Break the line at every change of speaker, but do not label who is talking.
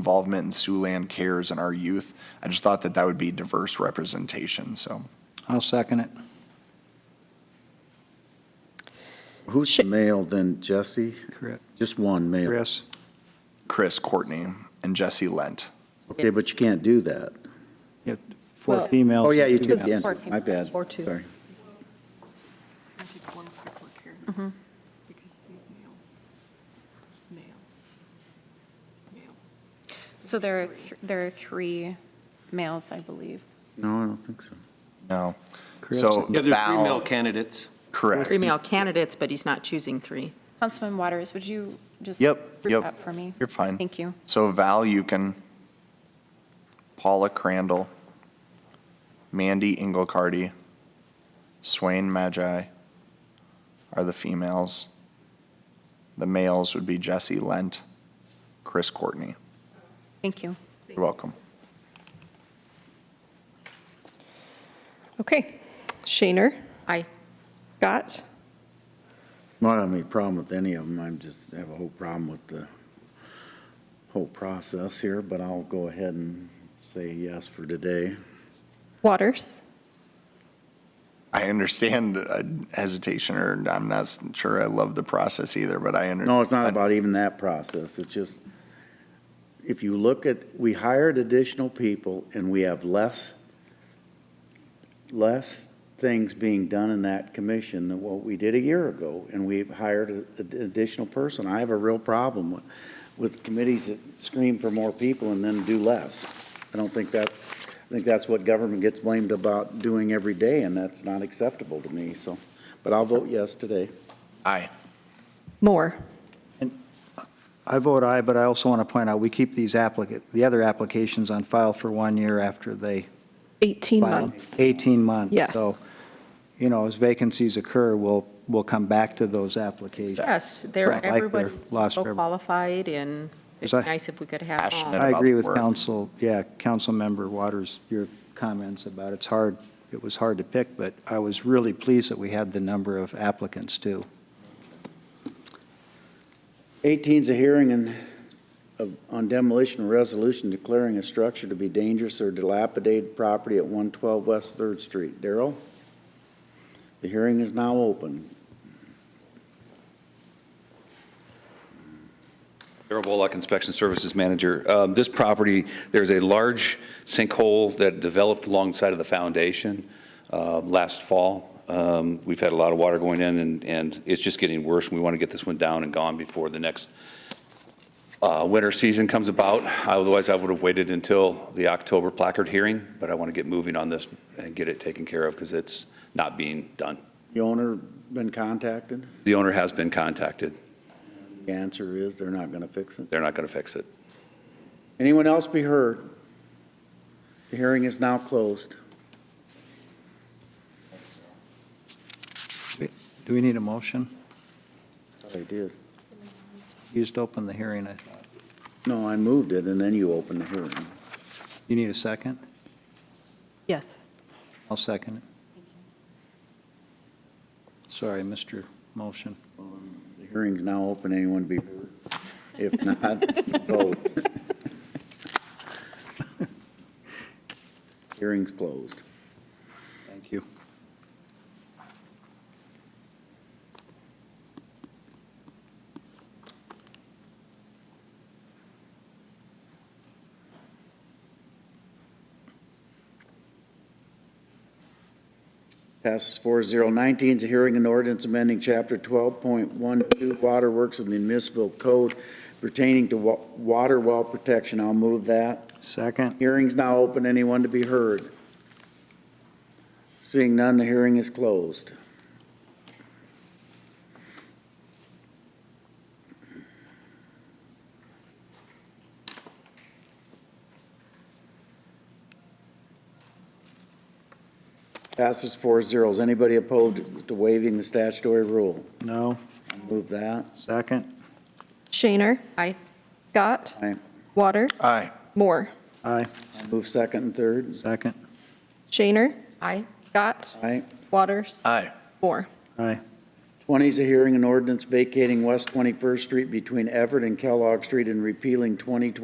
involvement in Siouxland Cares and our youth. I just thought that that would be diverse representation, so.
I'll second it.
Who's the male then, Jesse?
Correct.
Just one male?
Chris?
Chris Courtney and Jesse Lent.
Okay, but you can't do that.
You have Four
Well-
females.
Oh, yeah, you
two
took
Because
the end.
four
My bad.
females. Or two.
Sorry.
I'll take one quick look here.
Mm-hmm.
Because these male, male, male.
So there are,
there's three.
th- there are three males, I believe.
No, I don't think so.
No.
Chris.
So
Yeah, there's three
Val-
male candidates.
Correct.
Three male candidates, but he's not choosing three.
Councilman Waters, would you just?
Yep,
look
yep.
up for me?
You're fine.
Thank you.
So Val Yukon, Paula Crandall, Mandy Inglecardy, Swain Magi are the females. The males would be Jesse Lent, Chris Courtney.
Thank you.
You're welcome.
Okay. Shaner,
Aye.
Scott,
Not have any problem with any of them. I'm just, I have a whole problem with the whole process here, but I'll go ahead and say yes for today.
Waters,
I understand uh, hesitation, or I'm not s- sure I love the process either, but I under.
No, it's not about even that process. It's just, if you look at, we hired additional people and we have less, less things being done in that commission than what we did a year ago. And we've hired a- an additional person. I have a real problem with, with committees that scream for more people and then do less. I don't think that's, I think that's what government gets blamed about doing every day and that's not acceptable to me, so. But I'll vote yes today.
Aye.
Moore,
I vote aye, but I also want to point out, we keep these applicant, the other applications on file for one year after they
18
file.
months.
18 months.
Yes.
So, you know, as vacancies occur, we'll, we'll come back to those applications.
Yes,
I
they're,
like their
everybody's
loss
so
forever.
qualified, and it'd
Yes,
be
I-
nice if we could have all.
Passionate.
I agree
about
with
the work.
council, yeah, council member Waters, your comments about it's hard, it was hard to pick, but I was really pleased that we had the number of applicants, too.
18 is a hearing and, of- on demolition of resolution declaring a structure to be dangerous or dilapidated property at 112 West Third Street. Darrell? The hearing is now open.
Darrell Bollock, Inspection Services Manager. Um, This property, there's a large sinkhole that developed alongside of the foundation uh, last fall. Um, We've had a lot of water going in, and- and it's just getting worse, and we want to get this one down and gone before the next uh, winter season comes about. Otherwise, I would have waited until the October placard hearing, but I want to get moving on this and get it taken care of because it's not being done.
The owner been contacted?
The owner has been contacted.
The answer is they're not going to fix it.
They're not going to fix it.
Anyone else be heard? The hearing is now closed.
Do we need a motion?
They did.
You just opened the hearing, I thought.
No, I moved it, and then you opened the hearing.
You need a second?
Yes.
I'll second it. Sorry, Mr. Motion.
The hearing's now open. Anyone be heard? If not, vote. Hearing's closed.
Thank you.
Passes four zero nineteen is a hearing and ordinance amending chapter twelve point one two Water Works of the Municipal Code pertaining to wa- water well protection. I'll move that.
Second?
Hearing's now open. Anyone to be heard? Seeing none, the hearing is closed. Passes four zeros. Anybody opposed to waiving the statutory rule?
No?
Move that.
Second?
Shaner,
Aye.
Scott,
Aye.
Water,
Aye.
Moore.
Aye.
Move second and third.
Second?
Shaner,
Aye.
Scott,
Aye.
Waters,
Aye.
Moore.
Aye.
20 is a hearing and ordinance vacating West 21st Street between Everett and Kellogg Street and repealing 2020